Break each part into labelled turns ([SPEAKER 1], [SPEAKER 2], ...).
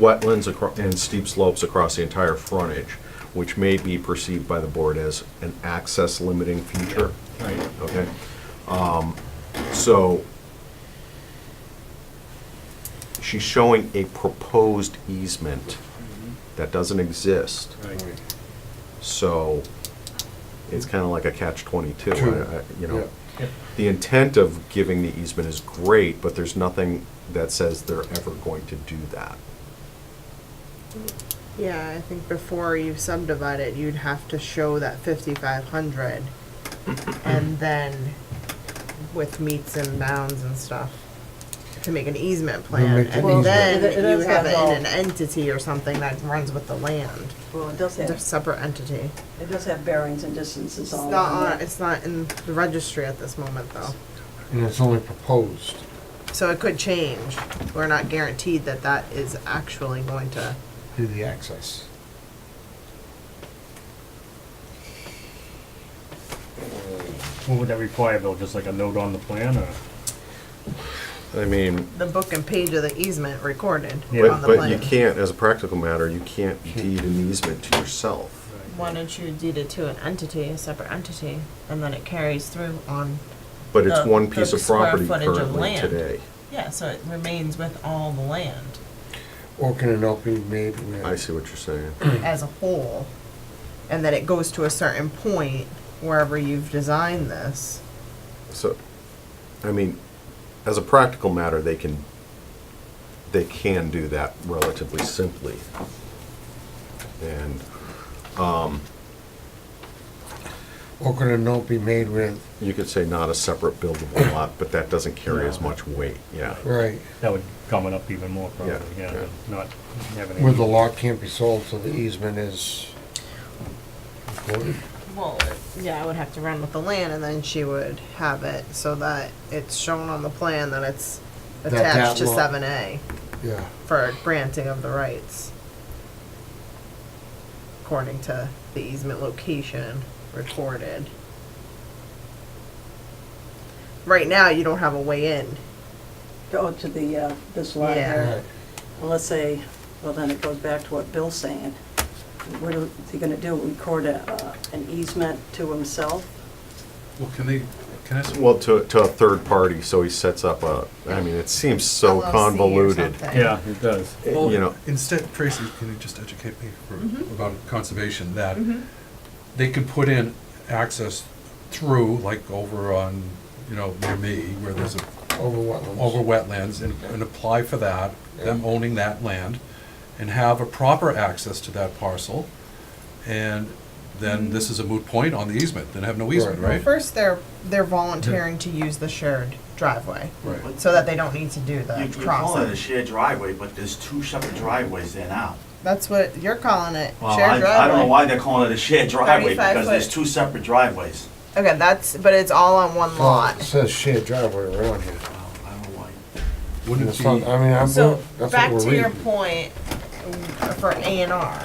[SPEAKER 1] wetlands acro- and steep slopes across the entire frontage, which may be perceived by the board as an access limiting feature,
[SPEAKER 2] Right.
[SPEAKER 1] okay? Um, So she's showing a proposed easement that doesn't exist.
[SPEAKER 2] Right.
[SPEAKER 1] So it's kind of like a catch twenty-two,
[SPEAKER 3] True.
[SPEAKER 1] I- I- you know.
[SPEAKER 2] Yep.
[SPEAKER 1] The intent of giving the easement is great, but there's nothing that says they're ever going to do that.
[SPEAKER 4] Yeah, I think before you subdivide it, you'd have to show that fifty-five hundred, and then with meets and bounds and stuff, to make an easement plan,
[SPEAKER 3] make an Well,
[SPEAKER 4] and then
[SPEAKER 5] it- it
[SPEAKER 4] you
[SPEAKER 5] is
[SPEAKER 4] have it
[SPEAKER 5] that
[SPEAKER 4] in an entity or something that runs with the land,
[SPEAKER 5] Well, it does
[SPEAKER 4] it's a
[SPEAKER 5] have,
[SPEAKER 4] separate entity.
[SPEAKER 5] it does have bearings and distances
[SPEAKER 4] It's
[SPEAKER 5] all
[SPEAKER 4] not
[SPEAKER 5] on
[SPEAKER 4] on,
[SPEAKER 5] it.
[SPEAKER 4] it's not in the registry at this moment, though,
[SPEAKER 3] And it's only proposed.
[SPEAKER 4] so it could change, we're not guaranteed that that is actually going to,
[SPEAKER 3] Do the access.
[SPEAKER 2] What would that require, Bill? Just like a note on the plan, or?
[SPEAKER 1] I mean,
[SPEAKER 4] the book and page of the easement recorded
[SPEAKER 2] Yeah.
[SPEAKER 4] on
[SPEAKER 1] but,
[SPEAKER 4] the
[SPEAKER 1] but you
[SPEAKER 4] plan.
[SPEAKER 1] can't, as a practical matter, you can't deed an easement to yourself.
[SPEAKER 4] Why don't you deed it to an entity, a separate entity, and then it carries through on,
[SPEAKER 1] But it's
[SPEAKER 4] The-
[SPEAKER 1] one piece
[SPEAKER 4] the
[SPEAKER 1] of
[SPEAKER 4] square
[SPEAKER 1] property
[SPEAKER 4] footage Uh, of
[SPEAKER 1] currently
[SPEAKER 4] land.
[SPEAKER 1] today.
[SPEAKER 4] yeah, so it remains with all the land
[SPEAKER 3] Or can an opening be made with?
[SPEAKER 1] I see what you're saying.
[SPEAKER 3] Hmm.
[SPEAKER 4] as a whole. And then it goes to a certain point wherever you've designed this.
[SPEAKER 1] So, I mean, as a practical matter, they can, they can do that relatively simply. And,
[SPEAKER 3] Or could a note be made with,
[SPEAKER 1] You could say not a separate buildable lot, but that doesn't carry as much weight, yeah.
[SPEAKER 3] right,
[SPEAKER 2] That would gum it up even more, probably,
[SPEAKER 1] Yeah,
[SPEAKER 2] yeah,
[SPEAKER 1] yeah.
[SPEAKER 2] than not having. any-
[SPEAKER 3] where the lot can't be sold, so the easement is recorded?
[SPEAKER 4] Well, yeah, I would have to run with the land and then she would have it so that it's shown on the plan that it's
[SPEAKER 3] That that
[SPEAKER 4] attached to
[SPEAKER 3] lot-
[SPEAKER 4] seven A
[SPEAKER 3] Yeah,
[SPEAKER 4] for granting of the rights. According to the easement location recorded. Right now, you don't have a way in.
[SPEAKER 5] Go to the, uh, this line
[SPEAKER 4] Yeah.
[SPEAKER 5] here.
[SPEAKER 3] right.
[SPEAKER 5] Well, let's say, well, then it goes back to what Bill's saying. What are they gonna do? Record a, uh, an easement to himself?
[SPEAKER 6] Well, can they,
[SPEAKER 1] Uh,
[SPEAKER 6] can I,
[SPEAKER 1] Well, to, to a third party, so he sets up a, I mean, it seems so
[SPEAKER 4] LLC or
[SPEAKER 1] convoluted.
[SPEAKER 4] something.
[SPEAKER 2] Yeah, it does.
[SPEAKER 1] You know,
[SPEAKER 6] well, instead, Tracy, can you just educate me for-
[SPEAKER 3] Mm-hmm.
[SPEAKER 6] about conservation, that they could put in access through, like over on, you know, near me, where there's a,
[SPEAKER 3] Over wetlands.
[SPEAKER 6] over wetlands, and, and apply for that, them
[SPEAKER 3] Yeah.
[SPEAKER 6] owning that land, and have a proper access to that parcel, and then this is a moot point on the easement, then have no easement,
[SPEAKER 3] Mm-hmm. Right.
[SPEAKER 6] right?
[SPEAKER 4] First, they're, they're volunteering to use the shared driveway,
[SPEAKER 6] Right.
[SPEAKER 4] so that they don't need to do
[SPEAKER 7] You-
[SPEAKER 4] the
[SPEAKER 7] You're calling it a
[SPEAKER 4] crossing.
[SPEAKER 7] shared driveway, but there's two separate driveways there now.
[SPEAKER 4] That's what you're calling it,
[SPEAKER 7] Well,
[SPEAKER 4] shared
[SPEAKER 7] I- I don't know
[SPEAKER 4] driveway.
[SPEAKER 7] why they're calling it a shared driveway,
[SPEAKER 4] 35
[SPEAKER 7] because there's
[SPEAKER 4] foot.
[SPEAKER 7] two separate driveways.
[SPEAKER 4] Okay, that's, but it's all on one
[SPEAKER 3] Well, it
[SPEAKER 4] lot.
[SPEAKER 3] says shared driveway around here.
[SPEAKER 7] Well, I don't know why.
[SPEAKER 3] And
[SPEAKER 6] Wouldn't it
[SPEAKER 3] it's not-
[SPEAKER 6] be,
[SPEAKER 3] I mean, I'm,
[SPEAKER 4] So,
[SPEAKER 3] that's
[SPEAKER 4] back
[SPEAKER 3] what we're
[SPEAKER 4] to your
[SPEAKER 3] reading.
[SPEAKER 4] point, mm, for A and R,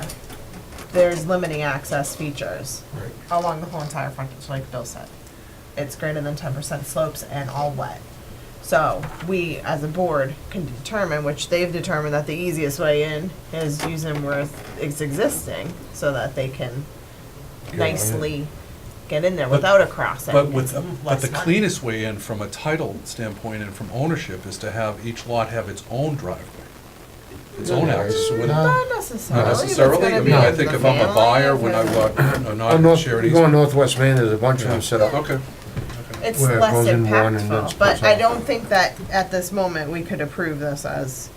[SPEAKER 4] there's limiting access features
[SPEAKER 3] Right.
[SPEAKER 4] along the whole entire frontage, like Bill said. It's greater than ten percent slopes and all wet. So, we, as a board, can determine, which they've determined that the easiest way in is using where it's existing, so that they can nicely get in there without a crossing.
[SPEAKER 6] but with,
[SPEAKER 4] It's
[SPEAKER 6] but the
[SPEAKER 4] less money.
[SPEAKER 6] cleanest way in from a title standpoint and from ownership is to have each lot have its own driveway, its own access, so whether-
[SPEAKER 4] Not necessarily.
[SPEAKER 6] Not
[SPEAKER 4] but it's
[SPEAKER 6] necessarily,
[SPEAKER 4] gonna
[SPEAKER 6] I
[SPEAKER 4] be
[SPEAKER 6] mean, I
[SPEAKER 4] the
[SPEAKER 6] think if I'm a
[SPEAKER 4] family,
[SPEAKER 6] buyer,
[SPEAKER 4] if
[SPEAKER 6] when I
[SPEAKER 4] it's-
[SPEAKER 6] want, I'm
[SPEAKER 3] I'm
[SPEAKER 6] not
[SPEAKER 3] not,
[SPEAKER 6] charity.
[SPEAKER 3] Uh, going northwest Maine, there's a bunch of them set up.
[SPEAKER 6] Okay,
[SPEAKER 4] It's
[SPEAKER 3] where it
[SPEAKER 4] less
[SPEAKER 3] goes in one and then
[SPEAKER 4] impactful, but
[SPEAKER 3] splits
[SPEAKER 4] I
[SPEAKER 3] off.
[SPEAKER 4] don't think that at this moment we could approve this as,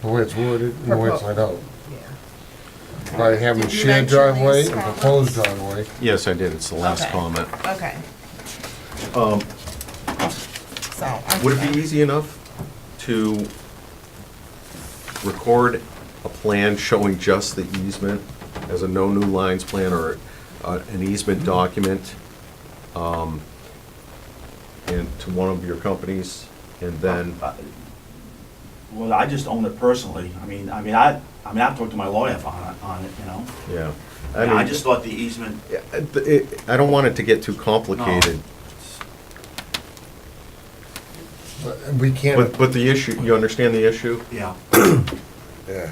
[SPEAKER 3] The way it's wooded, and the way it's laid out.
[SPEAKER 4] yeah.
[SPEAKER 3] By having
[SPEAKER 4] Did you
[SPEAKER 3] shared
[SPEAKER 4] mention
[SPEAKER 3] driveway
[SPEAKER 4] these
[SPEAKER 3] and
[SPEAKER 4] comments?
[SPEAKER 3] proposed driveway.
[SPEAKER 1] yes, I did, it's the last
[SPEAKER 4] Okay.
[SPEAKER 1] comment.
[SPEAKER 4] Okay. So.
[SPEAKER 1] Um, Would it be easy enough to record a plan showing just the easement as a no new lines plan or uh, an easement document um, and to one of your companies and then,
[SPEAKER 7] Uh, Well, I just own it personally. I mean, I mean, I, I mean, I've talked to my lawyer on, it- on it, you know?
[SPEAKER 1] yeah.
[SPEAKER 7] And I
[SPEAKER 1] mean-
[SPEAKER 7] just thought the easement,
[SPEAKER 1] Yeah, it- it- I don't want it to get too complicated,
[SPEAKER 3] But we can't.
[SPEAKER 1] but, but the issue, you understand the issue?
[SPEAKER 7] yeah.
[SPEAKER 3] Yeah.